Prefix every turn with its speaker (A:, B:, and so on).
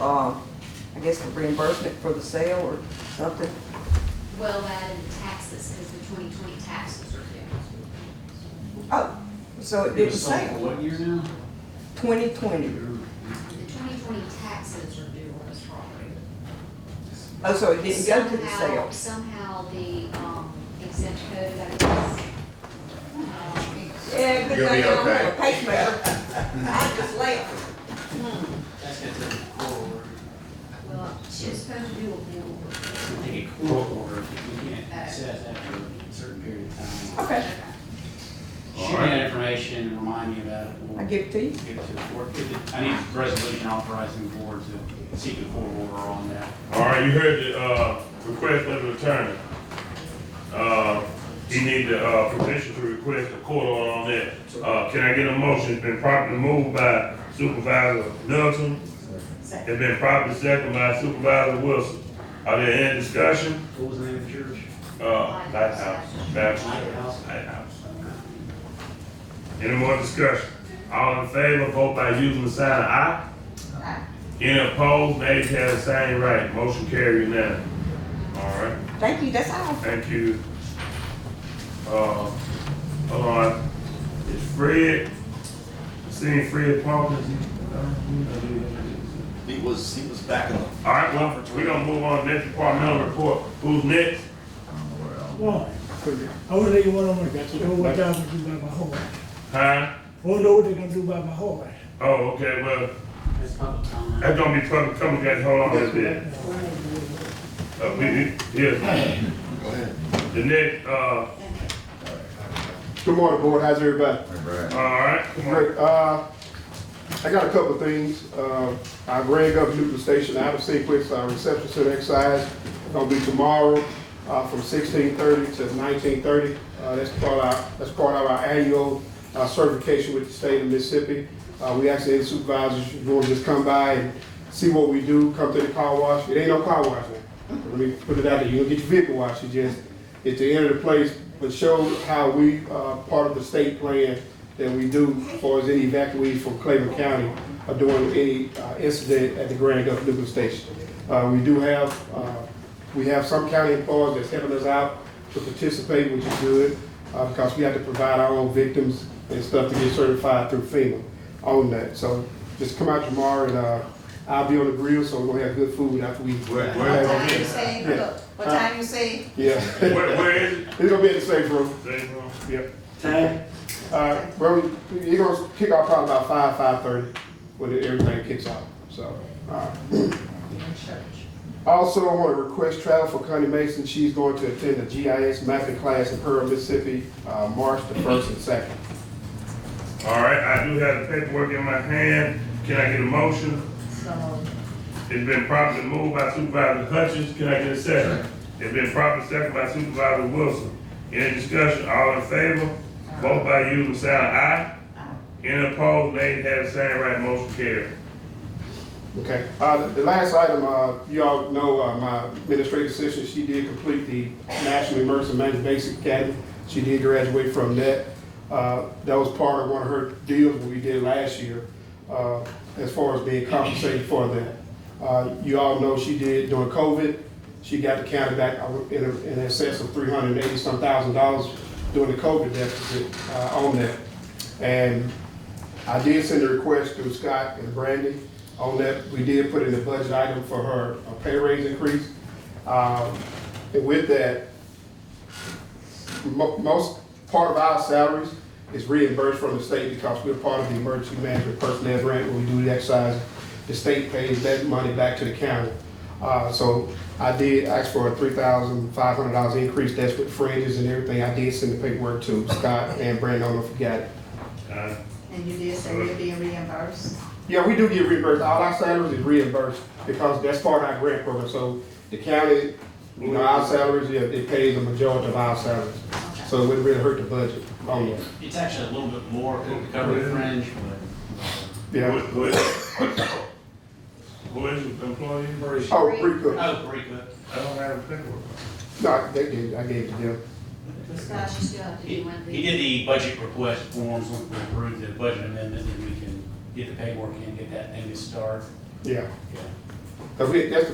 A: um, I guess the reimbursement for the sale or something.
B: Well, that and taxes, because the twenty twenty taxes are due.
A: Oh, so it didn't sale,
C: What year now?
A: twenty twenty.
B: The twenty twenty taxes are due on this property.
A: Oh, so it didn't go to the
B: Somehow-
A: sale.
B: Somehow the um, exempt code, I guess. um,
A: Yeah, good
D: You'll be
A: thing I don't
D: okay.
A: have a pacemaker. I just laughed.
C: That's gonna take a quarter.
B: Well, she was supposed to do a bill.
C: It's gonna take a quarter if you can't access after a certain period of time.
A: Okay,
C: Shoot me that information and remind me about it. We'll
A: I give it to you.
C: Give it to the board. If it- I need a resolution authorizing the board to seek a court order on that.
D: All right, you heard the, uh, request of the attorney. Uh, he need the, uh, permission to request a court order on that. Uh, can I get a motion? It's been properly moved by Supervisor Nelson. It's been properly seconded by Supervisor Wilson. Are there any discussion?
C: What was the name of the church?
D: Uh, Lighthouse, Baptist Church, Lighthouse. Any more discussion? All in favor, vote by using the sign of aye. Any opposed, nays have the same right. Motion carried unanimous. All right,
A: Thank you, that's all.
D: thank you. Uh, hold on, is Fred, seeing Fred Parkins? uh,
E: He was, he was back in the.
D: All right, well, we're gonna move on to next departmental report. Who's next?
F: Well, I wanna tell you what I'm gonna do, what I'm gonna do by my horse.
D: Huh?
F: I wanna know what they're gonna do by my horse.
D: Oh, okay, well,
C: That's public comment.
D: that's gonna be public, come guys, hold on a little bit. Uh, we, we- yeah,
E: Go ahead.
D: the next, uh,
G: Good morning, board. How's everybody?
D: all right, come on.
G: Great. Uh, I got a couple of things. Uh, I rang up Newton Station out of sequence, our reception center exercise. Gonna be tomorrow, uh, from sixteen thirty to nineteen thirty. Uh, that's part of, our- that's part of our annual, uh, certification with the state of Mississippi. Uh, we actually had supervisors, you want to just come by and see what we do, come to the car wash. It ain't no car wash now. Let me put it out there. You don't get your vehicle washed. You just, it's the end of the place, but show how we, uh, part of the state plan that we do as far as any evacuees from Clayton County are doing any uh, incident at the Grand Gulf Nuclear Station. Uh, We do have, uh, we have some county employees that's helping us out to participate, which is good, uh, because we have to provide our own victims and stuff to get certified through FEMA on that. So just come out tomorrow and uh, I'll be on the grill, so we're gonna have good food after we.
D: Where-
H: What
D: where-
H: time you say, look, what time you say?
G: Yeah.
D: Where, where is it?
G: It's gonna be in the safe room.
D: Say, uh,
G: Yep.
C: Ted?
G: Uh, well, you're gonna kick off probably about five, five thirty, when everything kicks off, so, alright. Also, I wanna request travel for Connie Mason, she's going to attend the GIS mapping class in Pearl, Mississippi, uh, March the first and second.
D: All right, I do have the paperwork in my hand. Can I get a motion?
H: So,
D: It's been properly moved by Supervisor Hutchins. Can I get a second? It's been properly seconded by Supervisor Wilson. Any discussion? All in favor? Vote by using the sign of aye. Any opposed? Nays have the same right. Motion carried.
G: Okay, uh, the- the last item, uh, you all know, uh, my administrative assistant, she did complete the National Emergency Management Basic Academy. She did graduate from that. Uh, that was part of one of her deals we did last year, uh, as far as being compensated for that. Uh, you all know she did during COVID, she got the county back uh, in, a- in excess of three hundred and eighty some thousand dollars during the COVID deficit, uh, on that. And I did send a request to Scott and Brandy on that. We did put in a budget item for her, a pay raise increase. Um, and with that, mo- most, part of our salaries is reimbursed from the state because we're part of the emergency management personnel grant when we do the exercise. The state pays that money back to the county. Uh, so I did ask for a three thousand five hundred dollars increase. That's with fringes and everything. I did send the paperwork to Scott and Brandy. I don't know if you got it.
D: Uh,
H: and you did say you're being reimbursed?
G: Yeah, we do get reimbursed. All our salaries is reimbursed because that's part of our grant program. So the county, you know, our salaries, yeah, it pays the majority of our salaries. So it wouldn't really hurt the budget Oh, on that.
C: It's actually a little bit more, to cover the fringe, but.
D: Who,
G: Yeah.
D: who is, who is the employee?
G: Oh, Bree Cook.
C: Oh, pretty good.
D: I don't have the paperwork.
G: No, they did, I gave it to them.
B: Scott, you still have to
C: He
B: do one of
C: he
B: these.
C: did the budget request forms, once we approve the budget amendment, then we can get the paperwork in, get that thing to start.
G: Yeah.
C: Yeah.
G: But Cause we, that's the